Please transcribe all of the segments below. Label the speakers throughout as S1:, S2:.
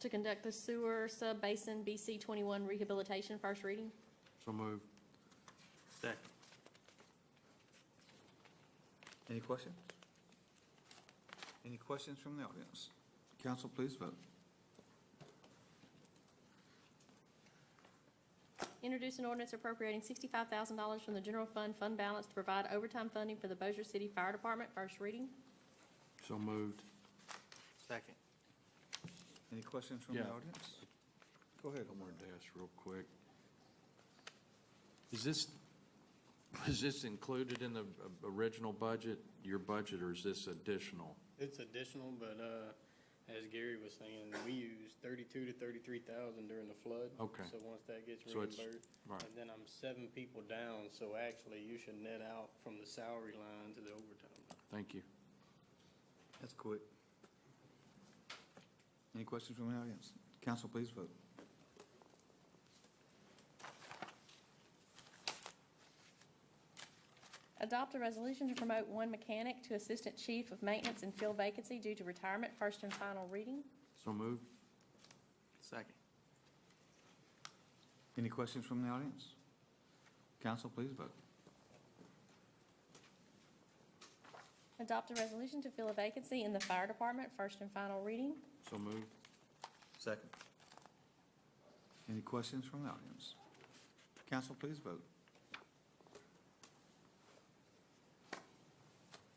S1: to conduct the sewer sub-basin BC twenty-one rehabilitation, first reading.
S2: So moved.
S3: Second.
S4: Any questions? Any questions from the audience? Council, please vote.
S1: Introduce an ordinance appropriating sixty-five thousand dollars from the general fund fund balance to provide overtime funding for the Bossier City Fire Department, first reading.
S2: So moved.
S3: Second.
S4: Any questions from the
S2: Yeah.
S4: audience? Go ahead,
S2: I
S4: Omar.
S2: wanted to ask real quick. Is this, is this included in the uh, original budget, your budget, or is this additional?
S5: It's additional, but, uh, as Gary was saying, we use thirty-two to thirty-three thousand during the flood.
S2: Okay.
S5: So once that gets
S2: So it's-
S5: reimbursed,
S2: right.
S5: and then I'm seven people down, so actually you should net out from the salary line to the overtime.
S2: Thank you.
S4: That's quick. Any questions from the audience? Council, please vote.
S1: Adopt a resolution to promote one mechanic to assistant chief of maintenance and fill vacancy due to retirement, first and final reading.
S2: So moved.
S3: Second.
S4: Any questions from the audience? Council, please vote.
S1: Adopt a resolution to fill a vacancy in the fire department, first and final reading.
S2: So moved.
S4: Second. Any questions from the audience? Council, please vote.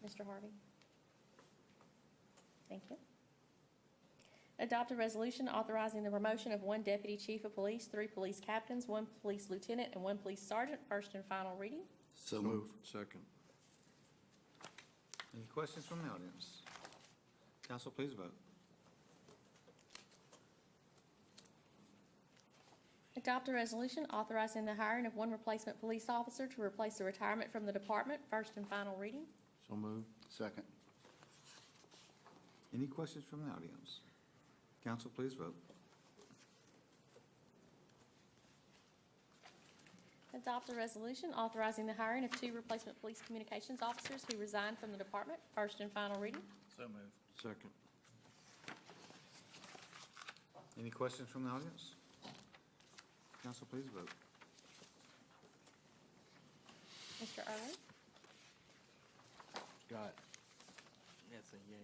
S1: Mr. Harvey? Thank you. Adopt a resolution authorizing the promotion of one deputy chief of police, three police captains, one police lieutenant, and one police sergeant, first and final reading.
S2: So moved. Second.
S4: Any questions from the audience? Council, please vote.
S1: Adopt a resolution authorizing the hiring of one replacement police officer to replace the retirement from the department, first and final reading.
S2: So moved.
S6: Second.
S4: Any questions from the audience? Council, please vote.
S1: Adopt a resolution authorizing the hiring of two replacement police communications officers who resigned from the department, first and final reading.
S3: So moved.
S2: Second.
S4: Any questions from the audience? Council, please vote.
S1: Mr. Irwin?
S2: Got it.
S3: That's a yay.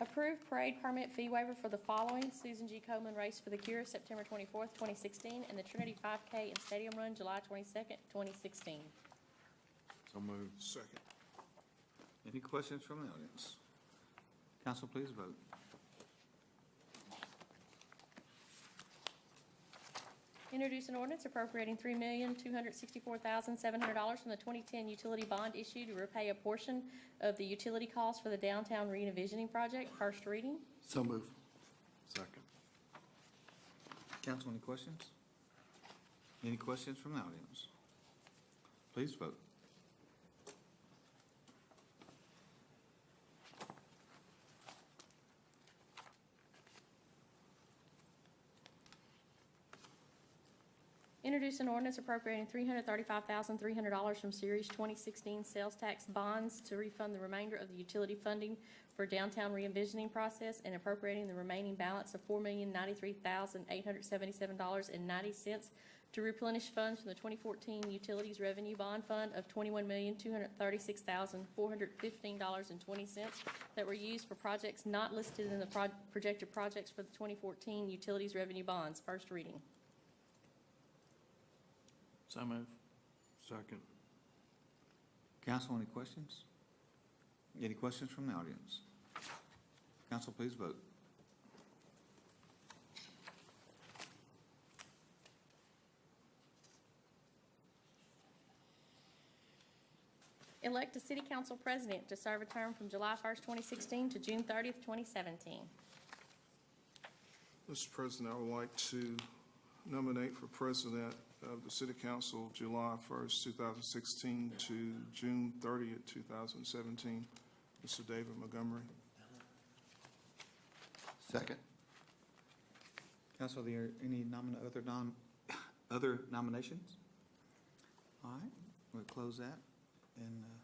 S1: Approve parade permit fee waiver for the following Susan G. Coleman Race for the Cure, September twenty-fourth, twenty sixteen, and the Trinity five K and Stadium Run, July twenty-second, twenty sixteen.
S2: So moved.
S6: Second.
S4: Any questions from the audience? Council, please vote.
S1: Introduce an ordinance appropriating three million, two hundred sixty-four thousand, seven hundred dollars from the twenty-ten utility bond issue to repay a portion of the utility costs for the downtown revisioning project, first reading.
S6: So move.
S2: Second.
S4: Council, any questions? Any questions from the audience? Please vote.
S1: Introduce an ordinance appropriating three hundred thirty-five thousand, three hundred dollars from Series twenty sixteen sales tax bonds to refund the remainder of the utility funding for downtown re-envisioning process and appropriating the remaining balance of four million, ninety-three thousand, eight hundred seventy-seven dollars and ninety cents to replenish funds from the twenty fourteen Utilities Revenue Bond Fund of twenty-one million, two hundred thirty-six thousand, four hundred fifteen dollars and twenty cents that were used for projects not listed in the proj- projected projects for the twenty fourteen Utilities Revenue Bonds, first reading.
S3: So moved.
S2: Second.
S4: Council, any questions? Any questions from the audience? Council, please vote.
S1: Elect a city council president to serve a term from July 1st, 2016 to June 30th, 2017.
S6: Mr. President, I would like to nominate for president of the city council July 1st, 2016 to June 30th, 2017, Mr. David Montgomery.
S4: Second. Council, are there any nomin, other nom, other nominations? All right, we'll close that and uh,